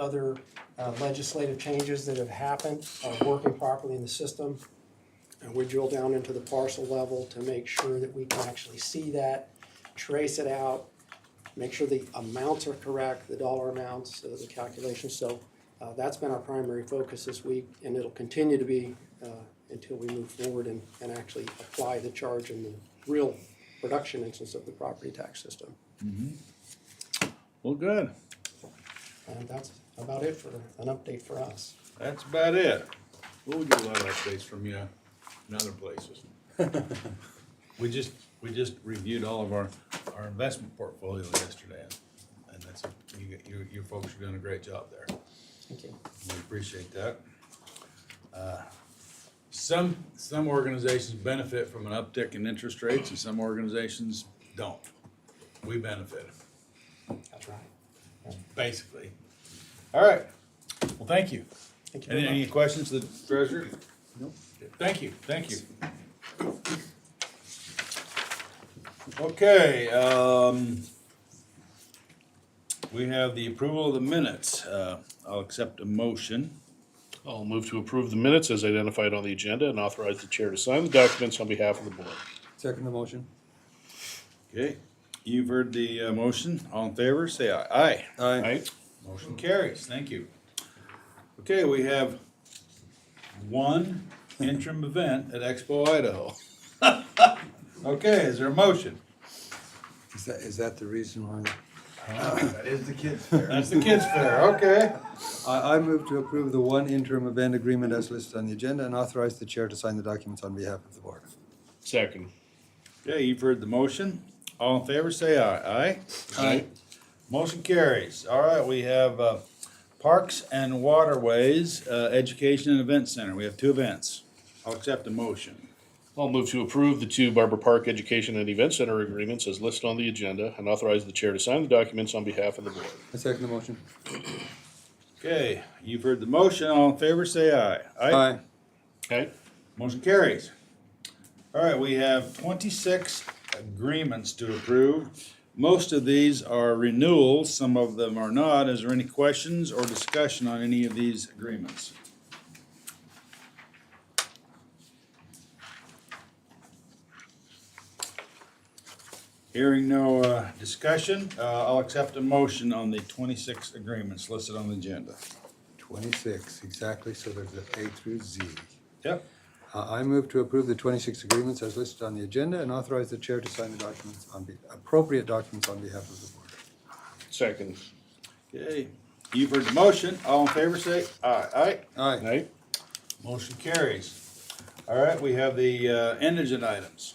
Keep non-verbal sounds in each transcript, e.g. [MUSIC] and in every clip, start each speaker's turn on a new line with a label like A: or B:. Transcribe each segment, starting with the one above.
A: other uh, legislative changes that have happened are working properly in the system. And we drill down into the parcel level to make sure that we can actually see that, trace it out, make sure the amounts are correct, the dollar amounts, uh, the calculations. So uh, that's been our primary focus this week, and it'll continue to be uh, until we move forward and, and actually apply the charge in the real production instance of the property tax system.
B: Well, good.
A: And that's about it for an update for us.
B: That's about it. We'll get a lot of updates from you in other places. [LAUGHS] We just, we just reviewed all of our, our investment portfolio yesterday, and that's, you, you, you folks are doing a great job there.
A: Thank you.
B: We appreciate that. Uh, Some, some organizations benefit from an uptick in interest rates, and some organizations don't. We benefit,
A: That's right.
B: basically. All right, well, thank you.
A: Thank you
B: Any,
A: very
B: any
A: much.
B: questions to the treasurer? Nope. Thank you, thank you. Okay, um, we have the approval of the minutes. Uh, I'll accept a motion.
C: I'll move to approve the minutes as identified on the agenda and authorize the chair to sign the documents on behalf of the board.
D: Second the motion.
B: Okay, you've heard the, uh, motion. All in favor, say aye. Aye.
C: Aye.
B: Motion carries, thank you. Okay, we have one interim event at Expo Idaho. [LAUGHS] Okay, is there a motion?
D: Is that, is that the reason why?
E: That is the kids'
B: [LAUGHS]
E: fair.
B: That's the kids' fair, okay.
D: I, I move to approve the one interim event agreement as listed on the agenda and authorize the chair to sign the documents on behalf of the board.
C: Second.
B: Okay, you've heard the motion. All in favor, say aye. Aye?
C: Aye.
B: Motion carries. All right, we have uh, Parks and Waterways uh, Education and Event Center. We have two events. I'll accept a motion.
C: I'll move to approve the two Barber Park Education and Event Center agreements as listed on the agenda and authorize the chair to sign the documents on behalf of the board.
D: I second the motion.
B: Okay, you've heard the motion. All in favor, say aye. Aye?
C: Okay?
B: Motion carries. All right, we have twenty-six agreements to approve. Most of these are renewals, some of them are not. Is there any questions or discussion on any of these agreements? Hearing no uh, discussion, uh, I'll accept a motion on the twenty-six agreements listed on the agenda.
D: Twenty-six, exactly, so there's a A through Z.
B: Yep.
D: I, I move to approve the twenty-six agreements as listed on the agenda and authorize the chair to sign the documents on, be- appropriate documents on behalf of the board.
C: Second.
B: Okay, you've heard the motion. All in favor, say aye. Aye?
D: Aye.
C: Aye?
B: Motion carries. All right, we have the uh, indigent items.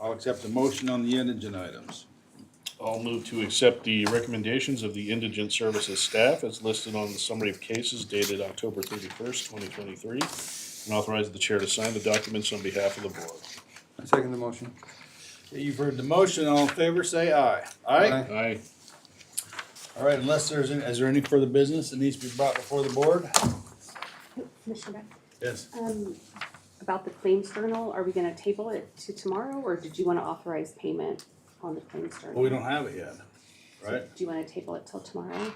B: I'll accept a motion on the indigent items.
C: I'll move to accept the recommendations of the indigent services staff as listed on the summary of cases dated October thirty-first, twenty twenty-three, and authorize the chair to sign the documents on behalf of the board.
D: I second the motion.
B: Okay, You've heard the motion. All in favor, say aye. Aye?
D: Aye.
C: Aye.
B: All right, unless there's, any- is there any further business that needs to be brought before the board?
F: Commissioner,
B: Yes.
F: um, about the claims journal, are we gonna table it to tomorrow, or did you wanna authorize payment on the claims
B: Well,
F: journal?
B: we don't have it yet, right?
F: Do you wanna table it till tomorrow?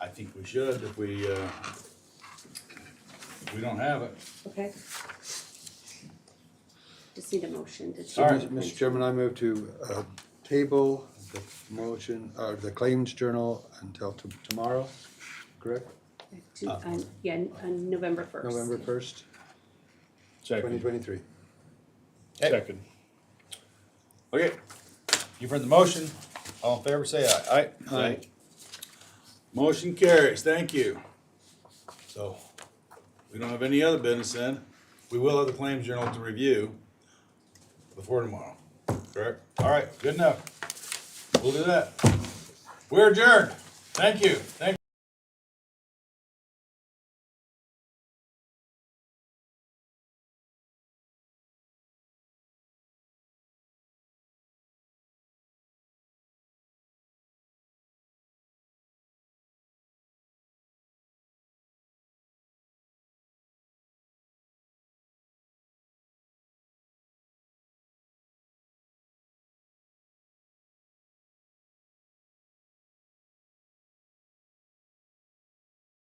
B: I think we should if we, uh, we don't have it.
F: Okay. Just need a motion to
D: So,
B: All
F: table.
B: right,
D: Mr. Mr. Chairman, I move to uh, table the motion, or the claims journal until to- tomorrow, correct?
F: To, um, yeah, on November first.
D: November first, twenty
C: Second.
D: twenty-three.
C: Second.
B: Okay, you've heard the motion. All in favor, say aye. Aye?
C: Aye.
B: Motion carries, thank you. So, we don't have any other business then. We will have the claims journal to review before tomorrow, correct? All right, good enough. We'll do that. We're adjourned. Thank you, thank